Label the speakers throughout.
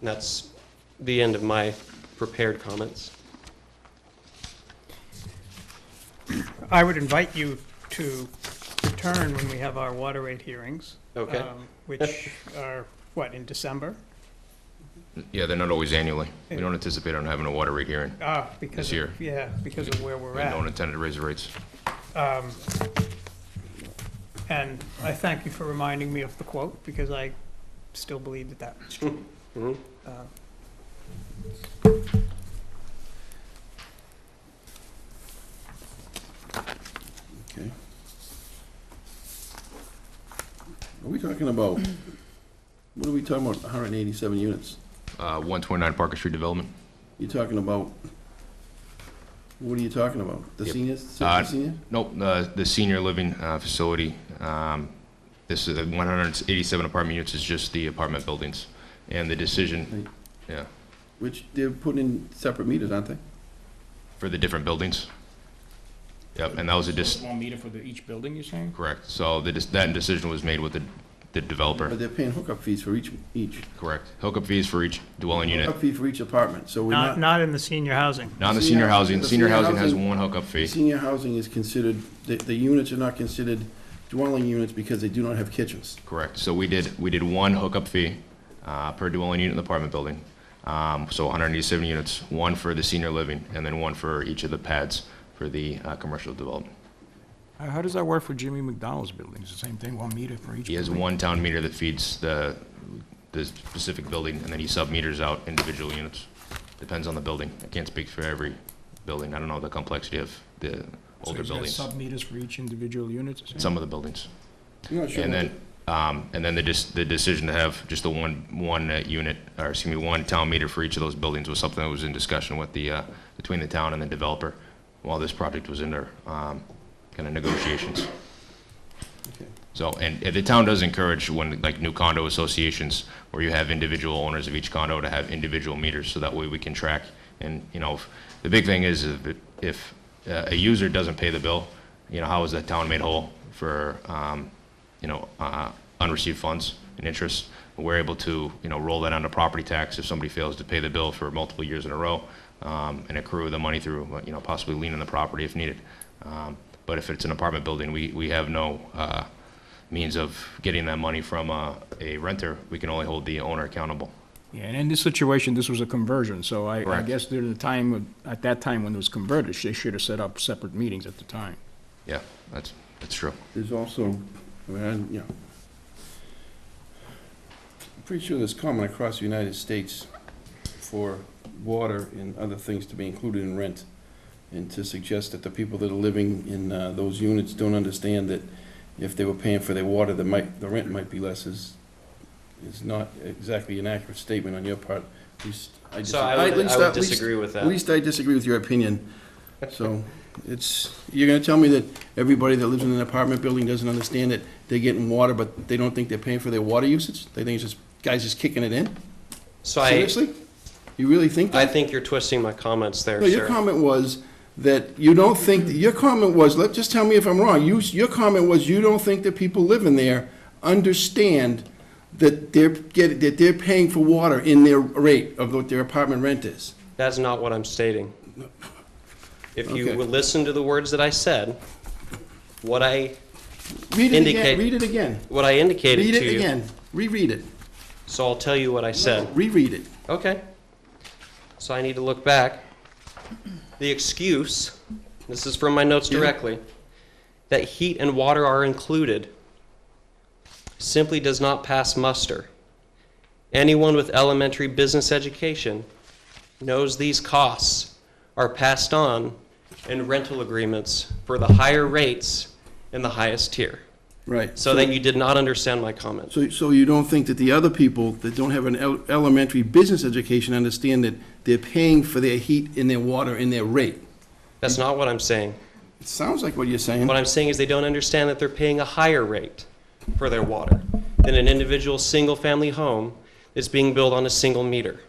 Speaker 1: And that's the end of my prepared comments.
Speaker 2: I would invite you to return when we have our water rate hearings.
Speaker 1: Okay.
Speaker 2: um, Which are, what, in December?
Speaker 3: Yeah, they're not always annually. We don't anticipate on having a water rate hearing.
Speaker 2: Ah, because
Speaker 3: This
Speaker 2: of-
Speaker 3: year.
Speaker 2: Yeah, because of where we're
Speaker 3: We don't
Speaker 2: at. Um,
Speaker 3: intend to raise the rates.
Speaker 2: And I thank you for reminding me of the quote, because I still believe that that's true. Uh,
Speaker 4: Okay. Are we talking about, what are we talking about, 187 units?
Speaker 3: Uh, 129 Parker Street Development.
Speaker 4: You're talking about, what are you talking about? The
Speaker 3: Yep.
Speaker 4: seniors,
Speaker 3: Uh,
Speaker 4: 60 senior?
Speaker 3: Nope, uh, the senior living uh, facility, um, this is the 187 apartment units is just the apartment buildings. And the decision, yeah,
Speaker 4: Which they're putting in separate meters, aren't they?
Speaker 3: for the different buildings. Yep, and that was a dis,
Speaker 5: One meter for the, each building, you're saying?
Speaker 3: correct. So the dis- that decision was made with the the
Speaker 4: But
Speaker 3: developer,
Speaker 4: they're paying hookup fees for each, each.
Speaker 3: correct. Hookup fees for each dwelling unit.
Speaker 4: Hookup fee for each apartment, so we're
Speaker 2: Not,
Speaker 4: not,
Speaker 2: not in the senior housing.
Speaker 3: Not in the senior housing.
Speaker 4: The
Speaker 3: Senior
Speaker 4: senior
Speaker 3: housing has
Speaker 4: housing-
Speaker 3: one hookup fee.
Speaker 4: senior housing is considered, the, the units are not considered dwelling units because they do not have kitchens.
Speaker 3: Correct. So we did, we did one hookup fee uh, per dwelling unit in the apartment building. Um, So 187 units, one for the senior living, and then one for each of the pads for the uh, commercial development.
Speaker 6: Uh,
Speaker 5: How how does that work for Jimmy McDonald's buildings? The same thing, one meter for each
Speaker 3: He has
Speaker 5: building?
Speaker 3: one town meter that feeds the, the specific building, and then he sub-meters out individual units. Depends on the building. I can't speak for every building. I don't know the complexity of the older buildings,
Speaker 5: So he's got sub-meters for each individual unit? you're saying?
Speaker 3: some of the buildings.
Speaker 4: I'm not sure
Speaker 3: And
Speaker 4: what the-
Speaker 3: then, um, and then the dis- the decision to have just the one, one uh, unit, or excuse me, one town meter for each of those buildings was something that was in discussion with the, uh, between the town and the developer while this project was in their, um, kind of negotiations.
Speaker 4: Okay.
Speaker 3: So, and, and the town does encourage when, like, new condo associations, where you have individual owners of each condo to have individual meters, so that way we can track. And, you know, if- the big thing is if, it- if uh, a user doesn't pay the bill, you know, how is the town made whole for, um, you know, uh, unreceived funds and interest? We're able to, you know, roll that onto property tax if somebody fails to pay the bill for multiple years in a row, um, and accrue the money through, uh, you know, possibly lien on the property if needed. Um, But if it's an apartment building, we, we have no, uh, means of getting that money from uh, a renter, we can only hold the owner accountable.
Speaker 6: Yeah, and in this situation, this was a conversion, so I, I
Speaker 3: Correct.
Speaker 6: guess during the time, of- at that time when it was converted, they should have set up separate meetings at the time.
Speaker 3: Yeah, that's, that's true.
Speaker 4: There's also, I mean, I, you know, I'm pretty sure there's common across the United States for water and other things to be included in rent. And to suggest that the people that are living in uh, those units don't understand that if they were paying for their water, the might, the rent might be less is, is not exactly an accurate statement on your part. At least I
Speaker 1: So
Speaker 4: disagree-
Speaker 1: I
Speaker 4: at
Speaker 1: would,
Speaker 4: least-
Speaker 1: I would
Speaker 4: at least-
Speaker 1: disagree with
Speaker 4: at
Speaker 1: that.
Speaker 4: least I disagree with your opinion. So it's, you're gonna tell me that everybody that lives in an apartment building doesn't understand that they're getting water, but they don't think they're paying for their water usage? They think it's just, guys just kicking it in?
Speaker 1: So I,
Speaker 4: Seriously? You really think
Speaker 1: I
Speaker 4: that?
Speaker 1: think you're twisting my comments there,
Speaker 4: No, your
Speaker 1: sir.
Speaker 4: comment was that you don't think, your comment was, let, just tell me if I'm wrong. You, your comment was you don't think that people living there understand that they're getting, that they're paying for water in their rate of what their apartment rent is.
Speaker 1: That's not what I'm stating. If you
Speaker 4: Okay.
Speaker 1: will listen to the words that I said, what I,
Speaker 4: Read it again,
Speaker 1: Indicate-
Speaker 4: read it again.
Speaker 1: what I indicated
Speaker 4: Read
Speaker 1: to
Speaker 4: it
Speaker 1: you.
Speaker 4: again. Reread it.
Speaker 1: So I'll tell you what I said.
Speaker 4: Reread it.
Speaker 1: Okay. So I need to look back. The excuse, this is from my notes
Speaker 4: Yeah.
Speaker 1: directly, that heat and water are included simply does not pass muster. Anyone with elementary business education knows these costs are passed on in rental agreements for the higher rates in the highest tier.
Speaker 4: Right.
Speaker 1: So that you did not understand my comment.
Speaker 4: So, so you don't think that the other people that don't have an el- elementary business education understand that they're paying for their heat and their water and their rate?
Speaker 1: That's not what I'm saying.
Speaker 4: It sounds like what you're saying.
Speaker 1: What I'm saying is they don't understand that they're paying a higher rate for their water than an individual single-family home that's being built on a single meter.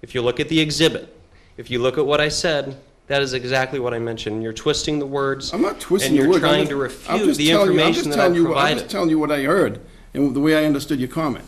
Speaker 1: If you look at the exhibit, if you look at what I said, that is exactly what I mentioned. You're twisting the words.
Speaker 4: I'm not twisting
Speaker 1: And
Speaker 4: your
Speaker 1: you're
Speaker 4: words. I'm
Speaker 1: trying
Speaker 4: just-
Speaker 1: to
Speaker 4: I'm
Speaker 1: refute
Speaker 4: just
Speaker 1: the
Speaker 4: telling you- I'm just
Speaker 1: information that I
Speaker 4: telling you what- I'm
Speaker 1: provided.
Speaker 4: just telling you what I heard and the way I understood your comment.